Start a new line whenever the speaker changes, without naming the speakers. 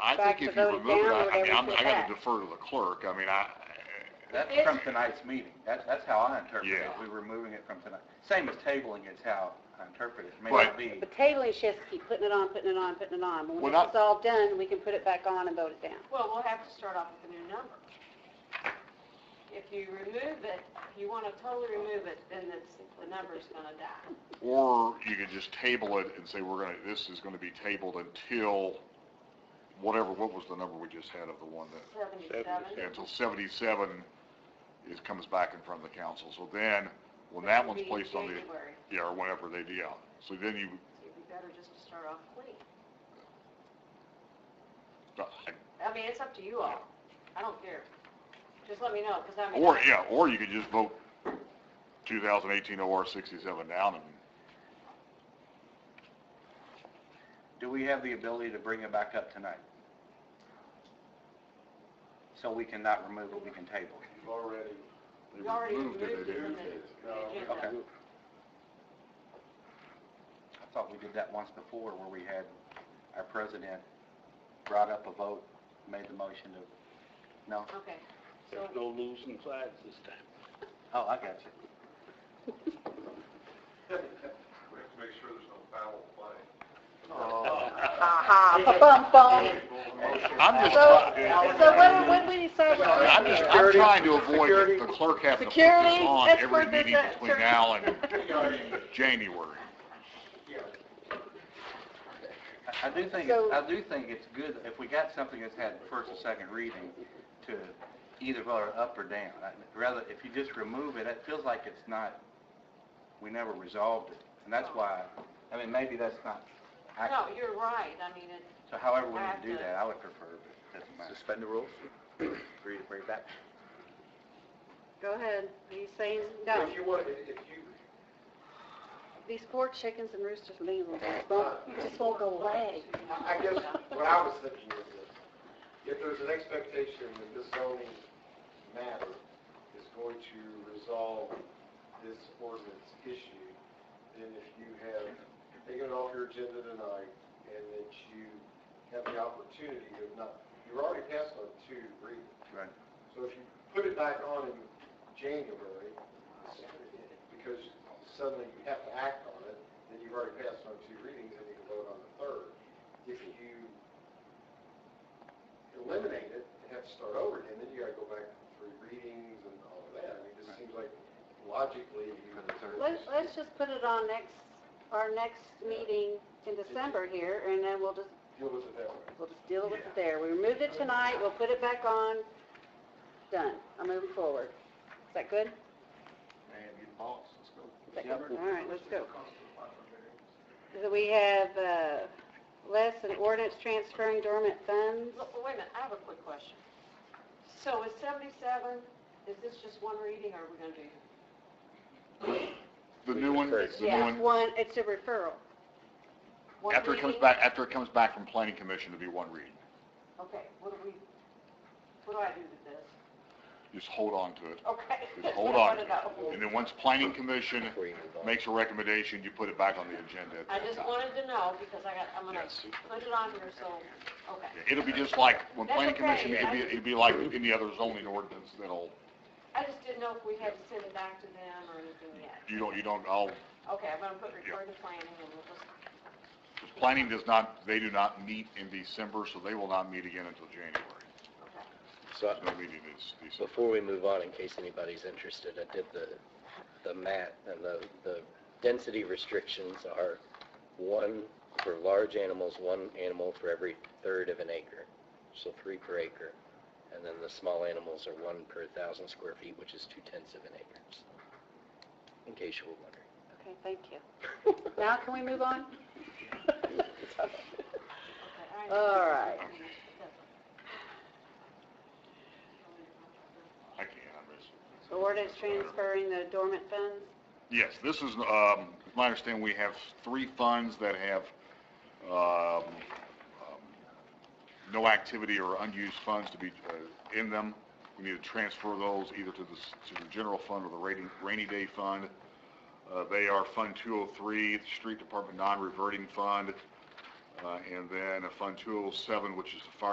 I
back
think
to
if you
those
remove it,
down,
I, I
would
mean, I'm, I
everything
gotta
back?
defer to the clerk, I mean, I,
That's from tonight's meeting. That's, that's how I interpret it.
Yeah.
We were moving it from tonight. Same as tabling is how I interpret it. It may
Right.
not be,
But tabling shifts, keep putting it on, putting it on, putting it on. But
Well,
When
not-
it's all done, we can put it back on and vote it down.
Well, we'll have to start off with a new number. If you remove it, if you want to totally remove it, then it's, the number's going to die.
or you could just table it and say, we're gonna, this is gonna be tabled until whatever, what was the number we just had of the one that, yeah,
Seventy-seven?
until seventy-seven is, comes back in front of the council, so then, when that one's
Be
placed on the,
January,
yeah, or whenever they do, yeah. so then you,
so it'd be better just to start off clean.
uh,
I mean, it's up to you all. I don't care. Just let me know, because I mean.
or, yeah, or you could just vote two thousand eighteen OR sixty-seven down and
do we have the ability to bring it back up tonight? So we cannot remove it, we can table it.
You've already,
You already
Moved it,
removed
they
it from
did.
the-
No.
the agenda.
Okay. I thought we did that once before where we had our president brought up a vote, made the motion to, no?
Okay.
there's no losing sides this time.
Oh, I got you.
We have to make sure there's no foul play.
Aha, bum, bum.
I'm just,
So,
try-
so what, what do we decide?
I'm just, I'm trying to avoid the clerk having to put this
Security,
on
let's
every
put this
meeting
at-
between now and January.
I- I do think,
So-
I do think it's good, if we got something that's had first and second reading, to either vote it up or down. I- Rather, if you just remove it, it feels like it's not, we never resolved it. And that's why, I mean, maybe that's not,
No,
accurate.
you're right. I mean, it,
so however we need to do that, I would prefer, but it doesn't matter.
Suspend the rules?
Agree to bring it back?
Go ahead. Are you saying, no,
If you want, if if you,
these poor chickens and roosters leave them, just won't, just won't go away.
I I guess what I was thinking is this, if there's an expectation that this zoning matter is going to resolve this ordinance issue, then if you have taken it off your agenda tonight and that you have the opportunity of not, you're already passed on two readings.
Right.
So if you put it back on in January, because suddenly you have to act on it, then you've already passed on two readings and you can vote on the third. If you eliminate it and have to start over again, then you gotta go back through readings and all of that. I mean, it just seems like logically you.
Let's, let's just put it on next, our next meeting in December here, and then we'll just,
Deal with it that way.
we'll just deal with it there. We removed it tonight, we'll put it back on, done. I'm moving forward. Is that good? Is that good? All right, let's go. So we have, uh, less an ordinance transferring dormant funds.
look, wait a minute, I have a quick question. So is seventy-seven, is this just one reading or are we gonna do?
The new one, the new
Yeah,
one,
one, it's a referral.
one
after it comes
reading?
back, after it comes back from planning commission to be one reading.
Okay, what do we, what do I do with this?
Just hold on to it.
Okay.
Just hold
I
on.
wanna know.
to it. And then once planning commission makes a recommendation, you put it back on the agenda at
I
that
just
time.
wanted to know because I got, I'm gonna
Yes.
put it on here, so, okay.
Yeah, It'll be just like, when
That's
planning commission,
okay.
it'd be, it'd be like any other zoning ordinance that'll,
I just didn't know if we had to send it back to them or anything yet.
you don't, you don't, I'll,
Okay, I'm gonna put refer to planning and we'll just,
because planning does not, they do not meet in December, so they will not meet again until January.
okay.
So,
There's no meeting is December.
before we move on, in case anybody's interested, I did the, the mat, and the, the density restrictions are one for large animals, one animal for every third of an acre, so three per acre. And then the small animals are one per thousand square feet, which is two tenths of an acre, so, in case you were wondering.
Okay, thank you. Now can we move on?
okay.
All right.
I can't, I miss it.
So ordinance transferring the dormant funds?
Yes, this is, um, it's my understanding, we have three funds that have, um, um, no activity or unused funds to be, uh, in them. We need to transfer those either to the, s- to the general fund or the rainy, rainy day fund. Uh, they are Fund 203, the Street Department Non-Reverting Fund, uh, and then a Fund 207, which is the Fire